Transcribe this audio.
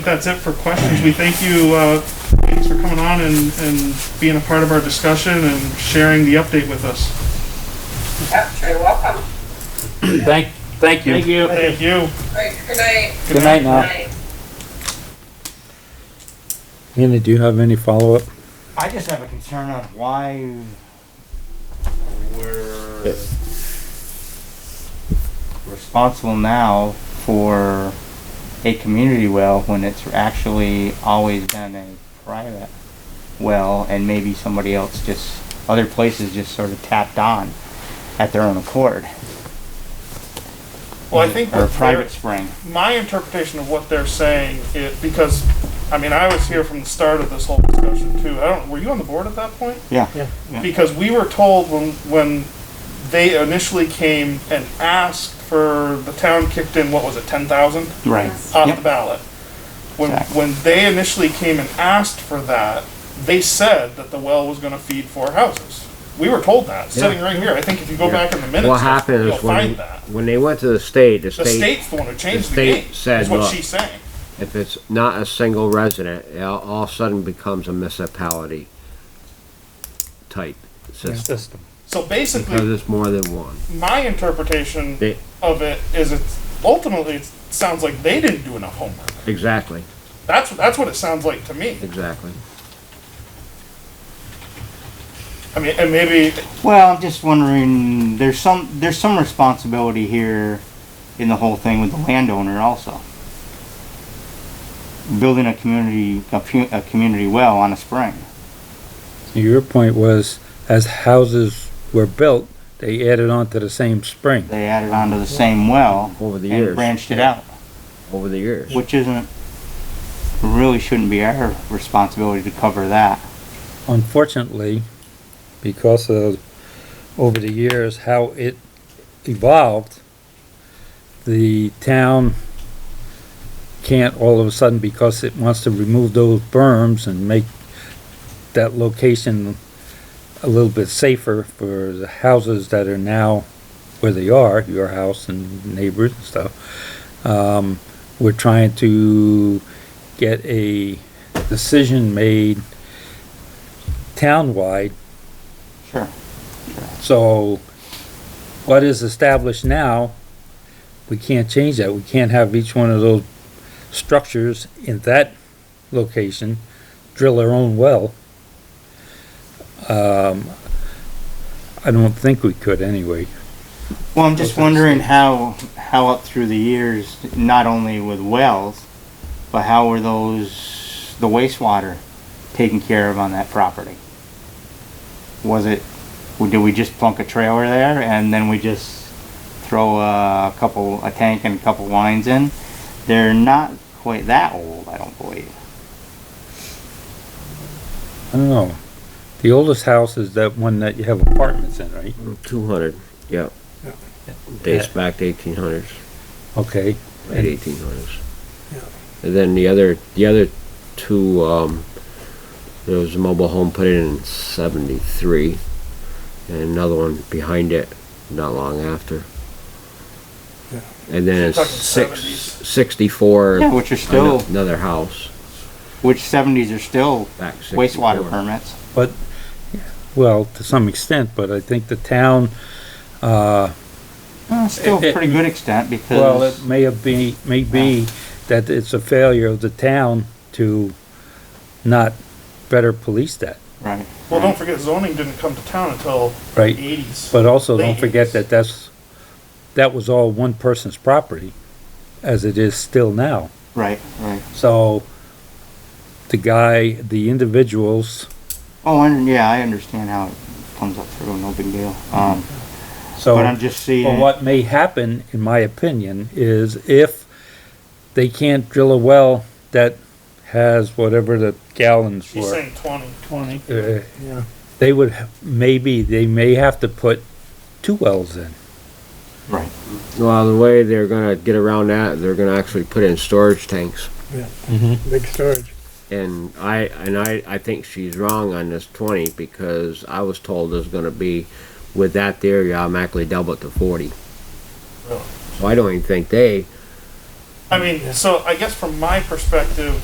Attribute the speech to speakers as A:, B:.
A: That's it for questions. We thank you, uh, thanks for coming on and, and being a part of our discussion and sharing the update with us.
B: Yep, you're welcome.
C: Thank, thank you.
D: Thank you.
A: Thank you.
B: All right, good night.
C: Good night now.
B: Night.
E: Andy, do you have any follow-up?
F: I just have a concern on why we're responsible now for a community well when it's actually always been a private well and maybe somebody else just, other places just sort of tapped on at their own accord.
A: Well, I think
F: Or a
A: what they're-
F: private spring.
A: my interpretation of what they're saying is, because, I mean, I was here from the start of this whole discussion too. I don't, were you on the board at that point?
F: Yeah. Yeah.
A: Because we were told when, when they initially came and asked for, the town kicked in, what was it, ten thousand?
F: Right.
A: off the
F: Yep.
A: ballot. When,
F: Exactly.
A: when they initially came and asked for that, they said that the well was gonna feed four houses. We were told that, sitting right here. I think if you go back in the minutes,
D: What happened
A: you'll
D: is when,
A: find that.
D: when they went to the state, the
A: The
D: state,
A: state's the one who changed the
D: state
A: game,
D: said,
A: is what
D: "Look."
A: she's saying.
D: if it's not a single resident, it all- all of a sudden becomes a municipality type system.
E: System.
A: So
D: Because
A: basically,
D: it's more than one.
A: my interpretation
D: They,
A: of it is it's ultimately, it sounds like they didn't do enough homework.
D: exactly,
A: That's, that's what it sounds like to me.
D: exactly.
A: I mean, and maybe,
F: Well, I'm just wondering. There's some there's some responsibility here in the whole thing with the landowner also. Building a community a, pu- a community well on a spring.
E: Your point was, as houses were built, they added on to the same spring.
F: They added onto the same well
D: Over the
F: and
D: years,
F: branched it out,
D: over the years.
F: which isn't really shouldn't be our responsibility to cover that.
E: Unfortunately, because of, over the years, how it evolved, the town can't all of a sudden, because it wants to remove those berms and make that location a little bit safer for the houses that are now where they are, your house and neighbors and stuff. Um, we're trying to get a decision made townwide.
F: Sure.
E: So what is established now, we can't change that. We can't have each one of those structures in that location drill their own well. Um, I don't think we could anyway.
F: Well, I'm just wondering how, how up through the years, not only with wells, but how were those, the wastewater taken care of on that property? Was it, did we just plunk a trailer there and then we just throw a couple, a tank and a couple lines in? They're not quite that old, I don't believe.
E: I don't know. The oldest house is that one that you have apartments in, right?
D: Two hundred, yep. Dates back to eighteen hundreds,
E: Okay,
D: late eighteen hundreds. And then the other, the other two, um, there was a mobile home put in in seventy-three, and another one behind it not long after. And then it's
A: You're talking
D: six,
A: 70s.
D: sixty-four.
F: Yeah, which are still-
D: ano- Another house,
F: Which seventies are still
D: back sixty-four.
F: wastewater permits.
E: well, to some extent, but I think the town, uh,
F: Uh, Still a pretty good extent
E: Well, it
F: because,
E: may have be, may be that it's a failure of the town to not better police that,
F: right.
A: well, don't forget zoning didn't come to town until
E: right?
A: eighties.
E: But also, don't
A: Ladies.
E: forget that that's, that was all one person's property, as it is still now.
F: Right, right.
E: So, the guy, the individuals,
F: Oh, and yeah, I understand how it comes up through, no big deal. Um,
E: so.
F: but I'm just seeing.
E: But what may happen, in my opinion, is if they can't drill a well that has whatever the gallons were.
A: She's saying twenty. Twenty.
E: Uh, they would, ha- maybe, they may have to put two wells in.
F: Right.
D: Well, the way they're gonna get around that, they're gonna actually put in storage tanks.
G: Big storage.
D: And I, and I, I think she's wrong on this twenty, because I was told there's gonna be, with that theory, automatically double it to forty.
A: Really?
D: So I don't even think they
A: I mean, so I guess from my perspective,